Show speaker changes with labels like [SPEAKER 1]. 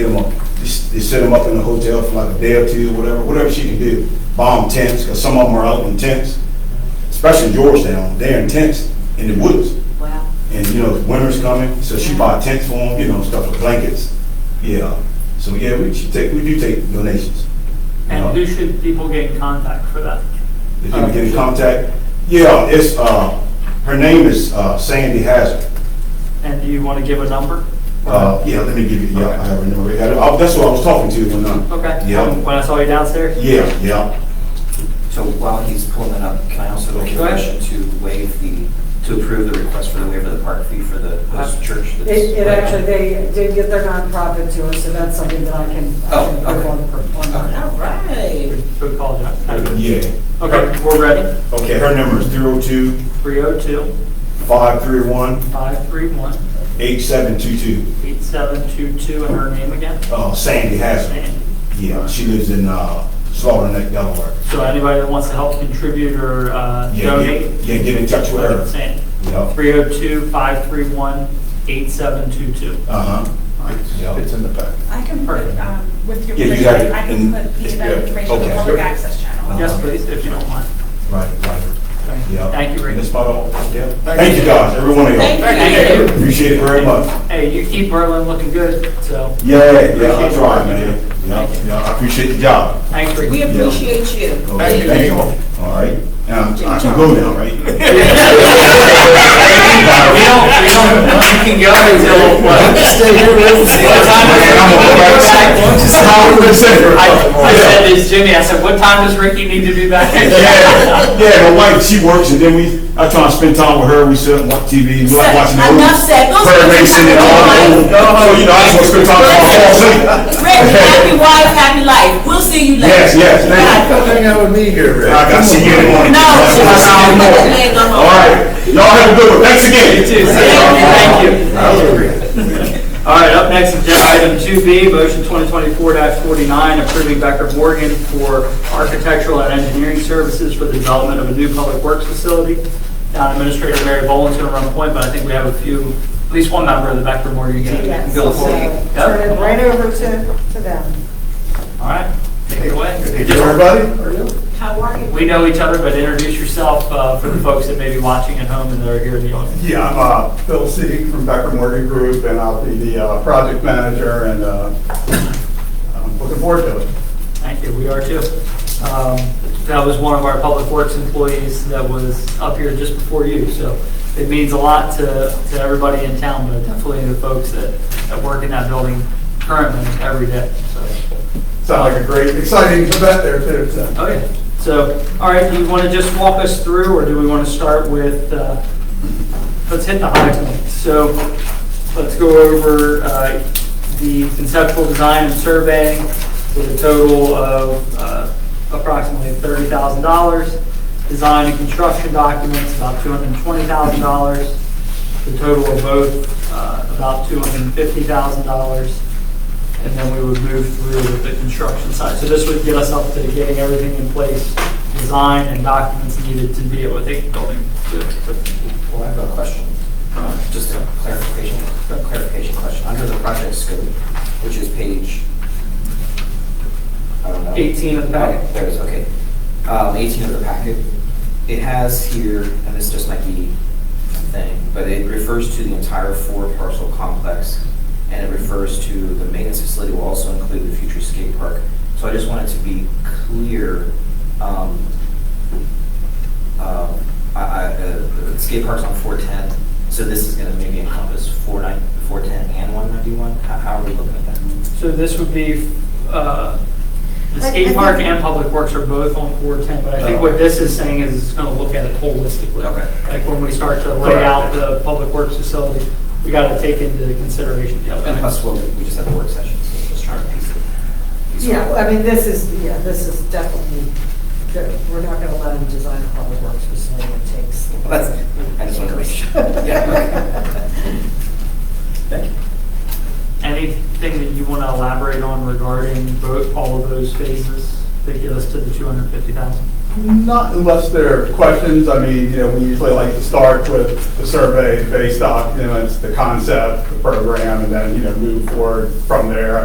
[SPEAKER 1] They s- They set them up in the hotel for like a day or two, whatever, whatever she can do. Bomb tents, because some of them are out in tents, especially in Georgetown, they're in tents in the woods.
[SPEAKER 2] Wow.
[SPEAKER 1] And, you know, winter's coming, so she bought tents for them, you know, stuff like blankets. Yeah, so yeah, we, she take, we do take donations.
[SPEAKER 3] And who uh, should people get in contact for that?
[SPEAKER 1] Did you get in contact? Yeah, it's, uh, her name is uh, Sandy Hazard.
[SPEAKER 3] And do you want to give a number?
[SPEAKER 1] Uh, yeah, let me give you, yeah, I have her number. Yeah, I- That's who I was talking to when I.
[SPEAKER 3] Okay.
[SPEAKER 1] Yeah,
[SPEAKER 3] When I saw you downstairs?
[SPEAKER 1] yeah, yeah.
[SPEAKER 4] So while he's pulling that up, can I also make a
[SPEAKER 3] Go ahead.
[SPEAKER 4] motion to waive the, to approve the request for the waiver of the park fee for the host church? that's-
[SPEAKER 2] It, uh, it actually, they did get their nonprofit to us, so that's something that I can, I can
[SPEAKER 4] Oh, okay.
[SPEAKER 2] work on. on-
[SPEAKER 4] All right.
[SPEAKER 3] Good call, Jack.
[SPEAKER 1] Yeah.
[SPEAKER 3] Okay, we're ready.
[SPEAKER 1] Okay, her number is 302
[SPEAKER 3] 302
[SPEAKER 1] 531
[SPEAKER 3] 531
[SPEAKER 1] 8722.
[SPEAKER 3] 8722 and her name again?
[SPEAKER 1] Uh, Sandy Hazard.
[SPEAKER 3] Sandy.
[SPEAKER 1] Yeah, she lives in, uh, Slaughter Neck, Delaware.
[SPEAKER 3] So anybody that wants to help contribute or uh,
[SPEAKER 1] Yeah, get-
[SPEAKER 3] donate?
[SPEAKER 1] yeah, get in touch with her.
[SPEAKER 3] Sandy.
[SPEAKER 1] Yeah.
[SPEAKER 3] 302 531 8722.
[SPEAKER 1] Uh-huh. Yeah.
[SPEAKER 5] It's in the pack.
[SPEAKER 6] I can put, um, with your
[SPEAKER 1] Yeah, you
[SPEAKER 6] permission,
[SPEAKER 1] got it
[SPEAKER 6] I
[SPEAKER 1] in-
[SPEAKER 6] can put the
[SPEAKER 1] it's
[SPEAKER 6] event
[SPEAKER 1] good.
[SPEAKER 6] information on the
[SPEAKER 1] Okay.
[SPEAKER 6] public access channel.
[SPEAKER 3] Yes, please, if you don't mind.
[SPEAKER 1] Right, right. Yeah.
[SPEAKER 3] Thank you, Rick.
[SPEAKER 1] That's about all. Yeah. Thank you guys, every one of y'all.
[SPEAKER 3] Thank you.
[SPEAKER 1] Appreciate it very much.
[SPEAKER 3] Hey, you keep Berlin looking good, so
[SPEAKER 1] Yeah, yeah, I
[SPEAKER 3] Appreciate
[SPEAKER 1] try,
[SPEAKER 3] it.
[SPEAKER 1] man. Yeah, yeah, I appreciate the job.
[SPEAKER 3] thanks for.
[SPEAKER 7] We appreciate you.
[SPEAKER 1] Okay, Thank you. All right, now, I can go now, right?
[SPEAKER 4] We don't, we don't, you can go until, what?
[SPEAKER 3] I said this, Jimmy, I said, what time does Ricky need to be back?
[SPEAKER 1] Yeah, yeah, my wife, she works, and then we, I try and spend time with her, we sit and watch TV, we like watching movies.
[SPEAKER 7] Enough said. Go
[SPEAKER 1] Bird
[SPEAKER 7] spend
[SPEAKER 1] racing and
[SPEAKER 7] time
[SPEAKER 1] all
[SPEAKER 7] with
[SPEAKER 1] that. So, you know, I just want to spend time with my wife.
[SPEAKER 7] Rick, happy wife, happy life. We'll see you
[SPEAKER 1] Yes,
[SPEAKER 7] later.
[SPEAKER 1] yes, thank you.
[SPEAKER 5] Hang out with me here, Rick.
[SPEAKER 1] I got to see you in the morning.
[SPEAKER 7] No,
[SPEAKER 1] That's what I see in the morning.
[SPEAKER 7] Later, go home.
[SPEAKER 1] All right, y'all have a good one, thanks again.
[SPEAKER 3] You too. Thank you.
[SPEAKER 1] That was great.
[SPEAKER 3] All right, up next, agenda item two B, motion twenty twenty-four forty-nine, approving Becker Morgan for architectural and engineering services for the development of a new public works facility. Town Administrator Mary Boland's gonna run point, but I think we have a few, at least one member of the Becker Morgan. gang.
[SPEAKER 2] Oh, Yes,
[SPEAKER 4] Go
[SPEAKER 2] so
[SPEAKER 4] for it.
[SPEAKER 2] Turn it right over to, to them.
[SPEAKER 3] All right, take it away.
[SPEAKER 5] Hey, everybody?
[SPEAKER 7] How are you?
[SPEAKER 3] We know each other, but introduce yourself uh, for the folks that may be watching at home and that are here in the audience.
[SPEAKER 8] Yeah, I'm uh, Phil Seeg from Becker Morgan Group, and I'll be the uh, project manager, and uh, I'm looking forward to it.
[SPEAKER 3] Thank you, we are too. Um, That was one of our Public Works employees that was up here just before you, so it means a lot to, to everybody in town, but definitely the folks that, that work in that building currently every day, so.
[SPEAKER 8] Sounds like a great, exciting event there, too,
[SPEAKER 7] Oh,
[SPEAKER 8] so.
[SPEAKER 3] Okay, so, all right, do you want to just walk us through, or do we want to start with, uh, let's hit the high point. So, let's go over uh, the conceptual design and surveying with a total of uh, approximately $30,000. Design and construction documents, about $220,000. The total of both, uh, about $250,000 and then we would move through with the construction side. So this would get us up to getting everything in place, design and documents needed to be able to take the building to, to-
[SPEAKER 4] Well, I have a question, Uh, just a clarification, a clarification question. Under the project scope, which is page, I don't know.
[SPEAKER 3] 18 of the packet.
[SPEAKER 4] There it is, okay. Um, 18 of the packet, it has here, and this just might be a thing, but it refers to the entire four parcel complex, and it refers to the maintenance facility will also include the future skate park. So I just wanted to be clear, um, um, I, I, uh, the skate park's on four ten, so this is gonna maybe encompass four nine, four ten and one ninety-one? How, how are we looking at that?
[SPEAKER 3] So this would be, uh, the
[SPEAKER 2] I- I
[SPEAKER 3] skate park
[SPEAKER 2] think-
[SPEAKER 3] and public works are both on 410, but I think what this is saying is it's gonna look at it holistically.
[SPEAKER 4] Okay.
[SPEAKER 3] Like when we start to lay
[SPEAKER 4] Correct.
[SPEAKER 3] out the public works facility, we gotta take into consideration the
[SPEAKER 4] And
[SPEAKER 3] other.
[SPEAKER 4] plus, well, we just had the work session, so just trying to piece it. piece it
[SPEAKER 2] Yeah,
[SPEAKER 4] up.
[SPEAKER 2] I mean, this is, yeah, this is definitely, we're not gonna let them design a public works facility that takes.
[SPEAKER 4] Well, That's, I just wanted to make sure. Yeah, okay. Thank you.
[SPEAKER 3] Anything that you wanna elaborate on regarding both, all of those phases that get us to the 250,000?
[SPEAKER 8] Not unless there are questions, I mean, you know, we usually like to start with the survey based off, you know, it's the concept, the program, and then, you know, move forward from there.